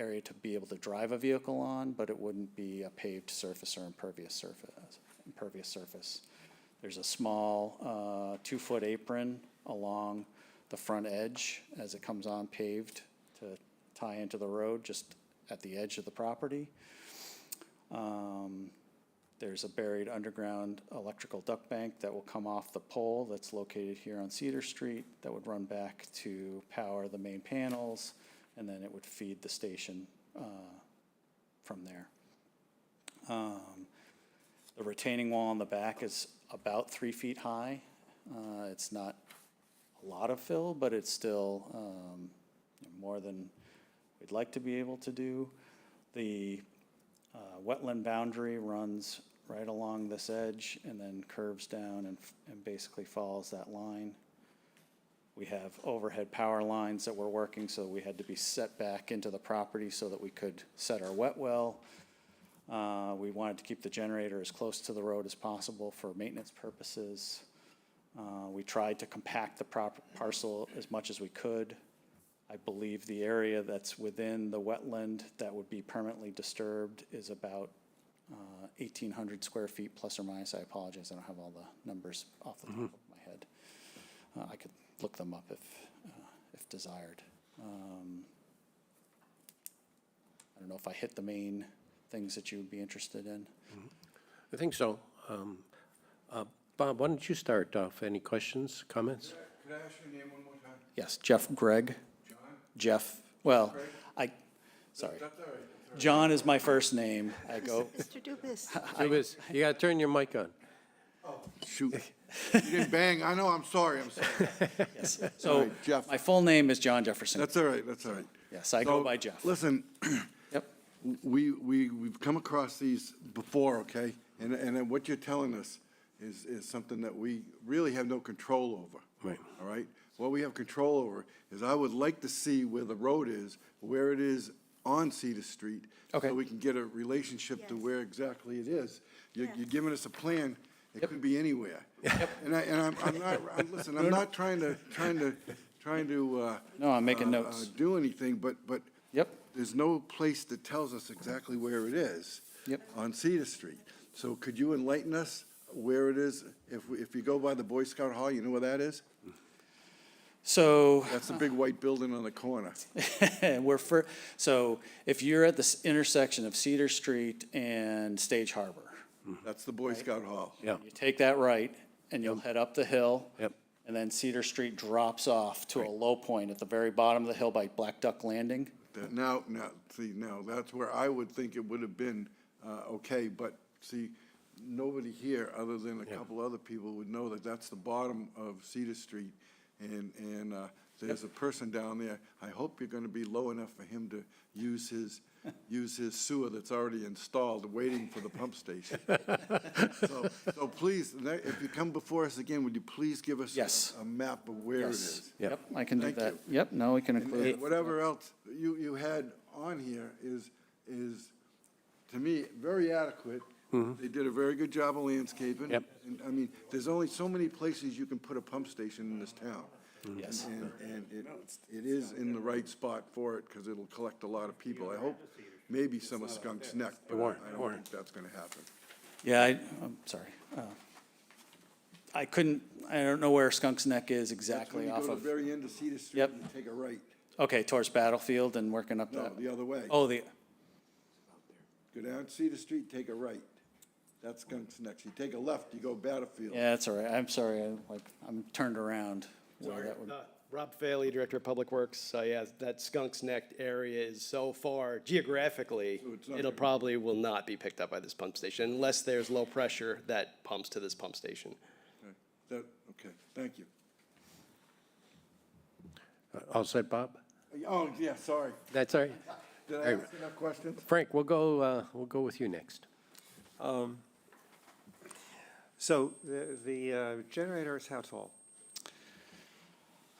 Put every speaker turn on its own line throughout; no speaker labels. area to be able to drive a vehicle on, but it wouldn't be a paved surface or impervious surface, impervious surface. There's a small, uh, two-foot apron along the front edge as it comes on paved to tie into the road, just at the edge of the property. Um, There's a buried underground electrical duct bank that will come off the pole that's located here on Cedar Street that would run back to power the main panels, and then it would feed the station uh, from there. Um, The retaining wall on the back is about three feet high. Uh, It's not a lot of fill, but it's still um, more than we'd like to be able to do. The uh, wetland boundary runs right along this edge and then curves down and, f- and basically follows that line. We have overhead power lines that we're working, so we had to be set back into the property so that we could set our wet well. Uh, we wanted to keep the generator as close to the road as possible for maintenance purposes. Uh, we tried to compact the prop, parcel as much as we could. I believe the area that's within the wetland that would be permanently disturbed is about uh, 1,800 square feet, plus or minus. I apologize, I don't have all the numbers off the top of my head. Uh, I could look them up if, uh, if desired. Um, I don't know if I hit the main things that you would be interested in.
I think so. Um, uh, Bob, why don't you start off? Any questions, comments?
Could I ask your name one more time?
Yes, Jeff Gregg.
John?
Jeff, well, I, sorry.
That's all right. that's all right.
John is my first name. I go,
Mr. Dubus,
Lewis, You gotta turn your mic on.
Shoot. You didn't bang. I know, I'm sorry, I'm sorry.
yes.
All
So
right, Jeff.
my full name is John Jefferson.
That's all right, that's all right.
Yes, I go
So,
by Jeff.
Listen,
Yep,
we, we, we've come across these before, okay? And, and then what you're telling us is, is something that we really have no control over.
Right.
All right? What we have control over is I would like to see where the road is, where it is on Cedar Street.
Okay.
So we can get a relationship to
Yes.
where exactly it is. You're,
Yeah.
you're giving us a plan, it could be anywhere. And I, and I'm, I'm not, I'm, listen, I'm not trying to, trying to, trying to, uh.
No, I'm making
uh, uh,
notes.
Do anything, but, but.
Yep.
There's no place that tells us exactly where it is.
Yep.
On Cedar Street. So could you enlighten us where it is? If, we- if you go by the Boy Scout Hall, you know where that is?
so
That's the big white building on the corner.
we're for, so if you're at this intersection of Cedar Street and Stage Harbor,
That's the Boy Scout Hall.
Yeah,
you take that right and you'll head up the hill.
Yep.
And then Cedar Street drops off to a low point at the very bottom of the hill by Black Duck Landing.
That- Now, now, see, now, that's where I would think it would have been, uh, okay, but see, nobody here, other than a couple other people, would know that that's the bottom of Cedar Street. And, and, uh, there's a person down there, I hope you're gonna be low enough for him to use his, use his sewer that's already installed, waiting for the pump station. So, so please, ne- if you come before us again, would you please give us a-
Yes.
a map of where it
Yes.
is?
Yep.
Yep, I can do
Thank
that.
you.
Yep, no, we can
And-
include.
And whatever else you, you had on here is, is, to me, very adequate.
Mm-hmm.
They did a very good job of landscaping.
Yep.
And, I mean, there's only so many places you can put a pump station in this town.
Mm-hmm. Yes.
And, and it, it is in the right spot for it, because it'll collect a lot of people. I hope maybe some of Skunk's Neck, but
warrant,
I don't
warrant.
think that's gonna happen.
Yeah, I, I'm sorry. Uh, I couldn't, I don't know where Skunk's Neck is
That's when
exactly
you
off
go to
of,
the very end of Cedar Street
Yep.
and you take a right,
okay, towards Battlefield and working up
no,
that.
the other way.
Oh, the,
Go down Cedar Street, take a right. That's Skunk's Neck. You take a left, you go Battlefield.
yeah, that's all right. I'm sorry, I like, I'm turned around. where that would-
Uh, Rob Faley, Director of Public Works, uh, yeah, that Skunk's Neck area is so far geographically,
it's not
it'll
gonna-
probably will not be picked up by this pump station unless there's low pressure that pumps to this pump station.
Okay, That, okay, thank you.
all set, Bob?
Oh, yeah, sorry.
That's all right.
Did I
Hey.
ask enough questions?
Frank, we'll go, uh, we'll go with you next.
So the, the uh, generator is how tall?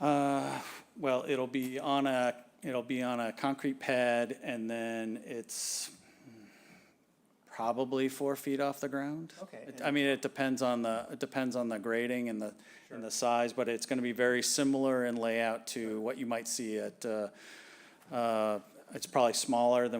Uh, Well, it'll be on a, it'll be on a concrete pad and then it's mm, probably four feet off the ground.
Okay,
It- I mean, it depends on the, it depends on the grading and the, and the size, but it's gonna be very similar in layout to what you might see at, uh, uh, It's probably smaller than